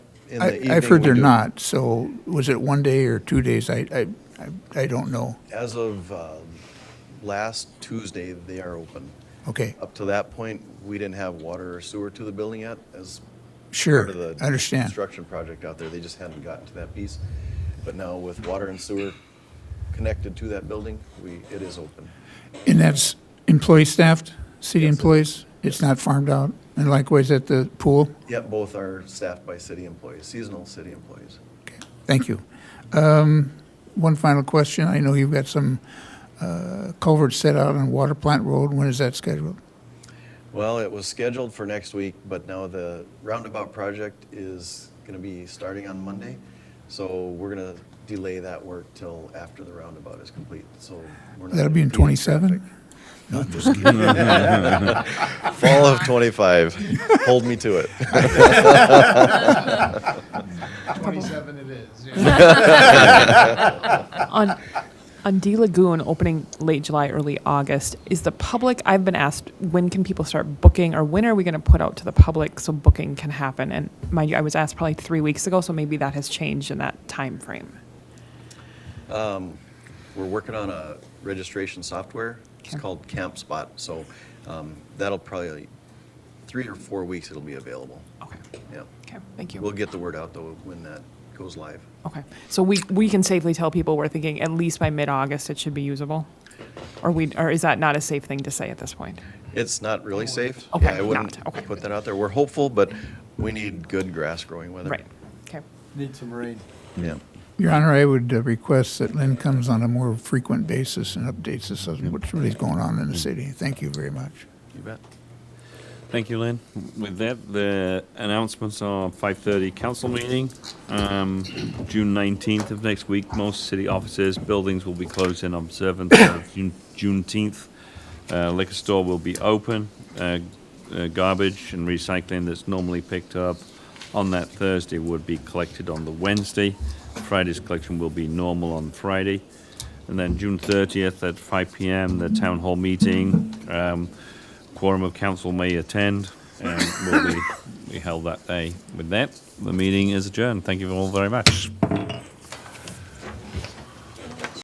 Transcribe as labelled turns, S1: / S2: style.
S1: in the
S2: I-
S1: evening.
S2: I've heard
S1: we
S2: they're
S1: do-
S2: not, so was it one day or two days? I, I, I- I don't know.
S1: As of um, last Tuesday, they are open.
S2: Okay,
S1: Up to that point, we didn't have water or sewer to the building yet as
S2: sure,
S1: part of the
S2: I understand.
S1: construction project out there. They just hadn't gotten to that piece. But now with water and sewer connected to that building, we, it is open.
S2: And that's employee staffed, city employees? It's not farmed out? And likewise at the pool?
S1: Yet both are staffed by city employees, seasonal city employees.
S2: Thank you. Um, One final question. I know you've got some uh, culverts set out on Water Plant Road. When is that scheduled?
S1: Well, it was scheduled for next week, but now the roundabout project is going to be starting on Monday. So we're going to delay that work till after the roundabout is complete, so. we're not
S2: That'll be in
S1: gonna
S2: '27?
S1: traffic. Fall of '25. Hold me to it.
S3: Twenty-seven it is, yeah.
S4: on on D Lagoon opening late July, early August, is the public? I've been asked when can people start booking, or when are we going to put out to the public so booking can happen? And mind you, I was asked probably three weeks ago, so maybe that has changed in that time frame.
S1: We're working on a registration software. It's
S4: Okay.
S1: called Camp Spot, so um, that'll probably, three or four weeks it'll be available.
S4: Okay.
S1: Yeah.
S4: Oh. Okay. Thank you.
S1: We'll get the word out though when that goes live.
S4: okay. So we we can safely tell people we're thinking at least by mid August it should be usable, or we or is that not a safe thing to say at this point?
S1: It's not really safe.
S4: Okay,
S1: Yeah, I wouldn't
S4: not, okay.
S1: put that out there. We're hopeful, but we need good grass growing weather.
S4: Right. Okay.
S3: Need some rain.
S1: Yeah.
S2: Your Honor, I would uh, request that Lynn comes on a more frequent basis and updates us on what's really going on in the city. Thank you very much.
S1: You bet.
S5: Thank you, Lynn. With that, the announcements are 5:30 council meeting, um, June 19th of next week. Most city offices, buildings will be closed in observance of June- Juneteenth. Uh, Liquor store will be open. Uh, uh, Garbage and recycling that's normally picked up on that Thursday would be collected on the Wednesday. Friday's collection will be normal on Friday. And then June 30th at 5 PM, the town hall meeting. Um, Quorum of council may attend and will be, be held that day. With that, the meeting is adjourned. Thank you all very much.